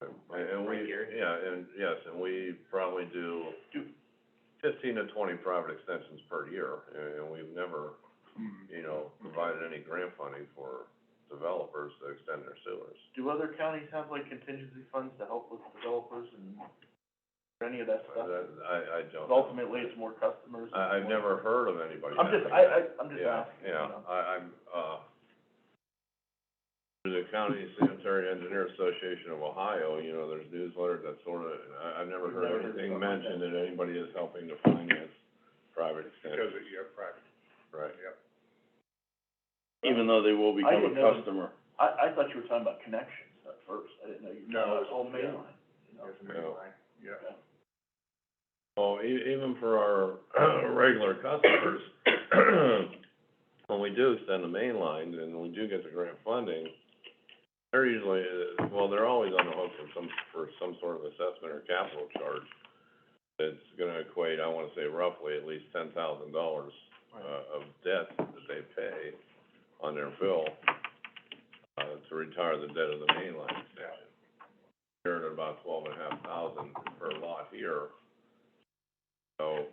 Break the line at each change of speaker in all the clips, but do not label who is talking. And, Uh, and
Right,
we,
Gary?
yeah, and, yes, and we probably do fifteen to twenty private extensions per year, and, and we've never,
Hmm.
you know, provided any grant funding for developers to extend their sewers.
Do other counties have like contingency funds to help with developers and or any of that
I,
stuff?
I- I don't.
'Cause
know.
ultimately, it's more customers. and
Uh, I, I've
more-
never heard of anybody
I'm just,
having
I,
that.
I, I'm just asking, you
Yeah,
know.
yeah, I, I'm, uh, through the County Sanitary Engineer Association of Ohio, you know, there's newsletters that sort of, I, I've never
We've
heard
never heard
anything
something like that.
mentioned that anybody is helping to finance private
Because
extensions,
it, yeah, private,
right?
yep.
even though they will
I
become
didn't
a
know-
customer.
I, I thought you were talking about connections at first, I didn't know you were
No,
talking about
it's-
whole main
yeah.
line, you know.
That's the
Yeah.
main line, yeah.
Okay.
Well, e- even for our regular customers, when we do extend the main line and we do get the grant funding, they're usually, uh, well, they're always on the hook for some, for some sort of assessment or capital charge that's gonna equate, I wanna say roughly, at least ten thousand dollars, uh, of debt that they pay on their bill, uh, to retire the debt of the main line extension. They're at about twelve and a half thousand per lot here, so,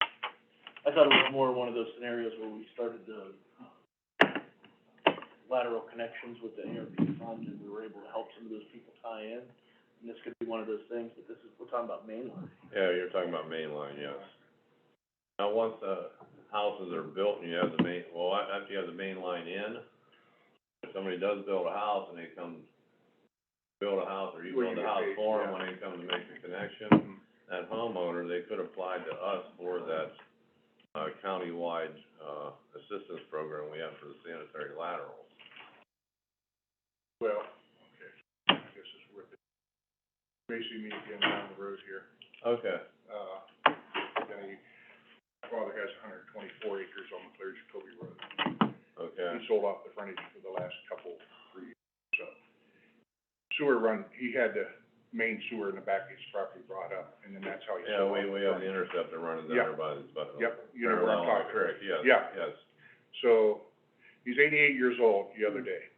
I thought it was more one of those scenarios where we started the lateral connections with the ARP fund and we were able to help some of those people tie in. And this could be one of those things, but this is, we're talking about mainline.
yeah, you're talking about main line, yes. Now, once the houses are built and you have the main, well, a- after you have the main line in, if somebody does build a house and they come, build a house, or you
Well, you
build a
get
house
paid,
for them
yeah.
when they come to make the connection,
Mhm.
that homeowner, they could apply to us for that, uh, countywide, uh, assistance program we have for the sanitary laterals.
Well, okay, I guess it's worth it. May see me again down the road here.
Okay.
Uh, yeah, you- my father has hundred and twenty-four acres on the clear Jacoby Road.
Okay,
He sold off the frontage for the last couple, three years, so. Sewer run, he had the main sewer in the back of his property brought up, and then that's how he
yeah,
sold off.
we, we have the interceptor running down
Yeah.
there by the, by the-
Yep, you know what I'm
Parallel
talking about.
Creek, yes,
Yeah.
yes.
So, he's eighty-eight years old the other day.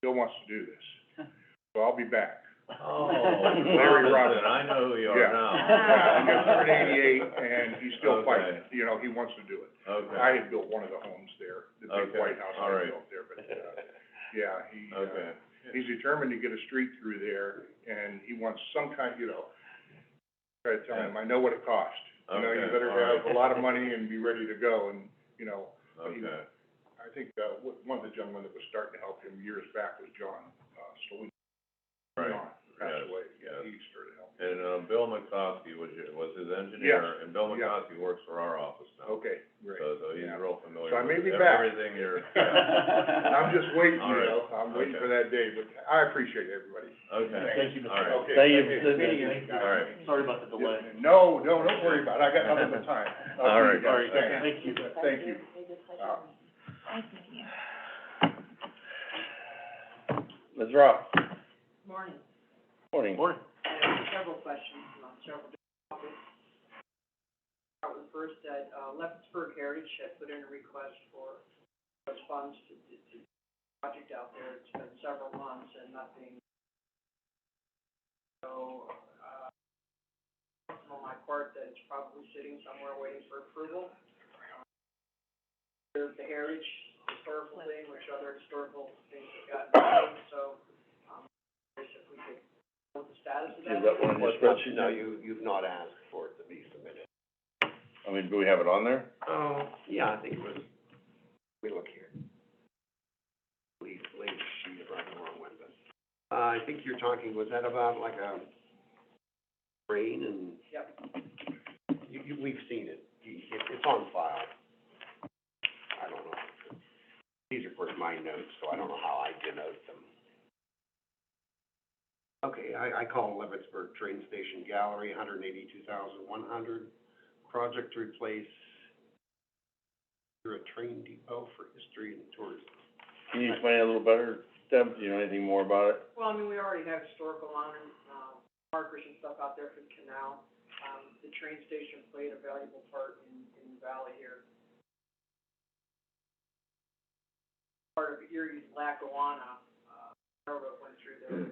Still wants to do this. So I'll be back.
Oh,
Larry Robinson.
Robinson, I know who you are
Yeah.
now.
Yeah, he just turned eighty-eight and he's still fighting, you know, he wants to do it. I
Okay,
had built one of the homes there, the big
Okay,
white house
all
I
right.
built there, but, uh, yeah, he,
okay.
uh, he's determined to get a street through there and he wants some kind, you know, try to tell him, I know what it cost. You know, you
Okay,
better
all right.
have a lot of money and be ready to go and, you know, he-
Okay,
I think, uh, one- one of the gentlemen that was starting to help him years back was John, uh, Stolin.
Right,
John Passed
yes,
away,
yes.
he started helping.
and, uh, Bill McCoskey was your, was his engineer, and Bill
yeah.
McCoskey works for our office now.
Okay, great.
So, so he's
yeah.
real familiar
So I may
with
be back.
everything you're, yeah.
I'm
I'm
just waiting,
All
you
right,
know, I'm waiting
okay.
for that day, but I appreciate everybody.
okay,
Thank you, Mr.
all right,
Okay,
Thank you,
okay,
Mr.
thank you,
Thank you.
guys.
All right.
Sorry about the delay.
Yeah, No, no, don't worry about it, I got nothing but time.
All
I'll
right,
see you guys.
all right,
Thank
thank
Thank you.
you.
Uh,
Ms. Rock,
Morning,
morning.
Morning.
I have several questions on several different topics. Start with first, that, uh, Leopardsburg Heritage had put in a request for those funds to, to, to project out there, it's been several months and nothing. So, uh, on my part, that it's probably sitting somewhere waiting for approval. There's the Heritage historical thing, which other historical things have gotten, done, so, um, curious if we could, know the status of that.
Is that one of your spreadsheets?
No, you, you've not asked for it to be submitted.
I mean, do we have it on there?
Oh. Yeah, I think it was, we look here. Please, please, she's right the wrong one, but, uh, I think you're talking, was that about like a rain and? Yep. You, you, we've seen it, you, it, it's on file. I don't know. These are, of course, my notes, so I don't know how I denote them. Okay, I, I call Leavittsburg Train Station Gallery, hundred and eighty-two thousand, one hundred project to replace through a train depot for history and tourism.
Can you explain it a little better, Deb, do you know anything more about it?
Well, I mean, we already have historical honor, uh, markers and stuff out there for the canal. Um, the train station played a valuable part in, in the valley here. Part of Erie's Lackawanna, uh, railroad went through there.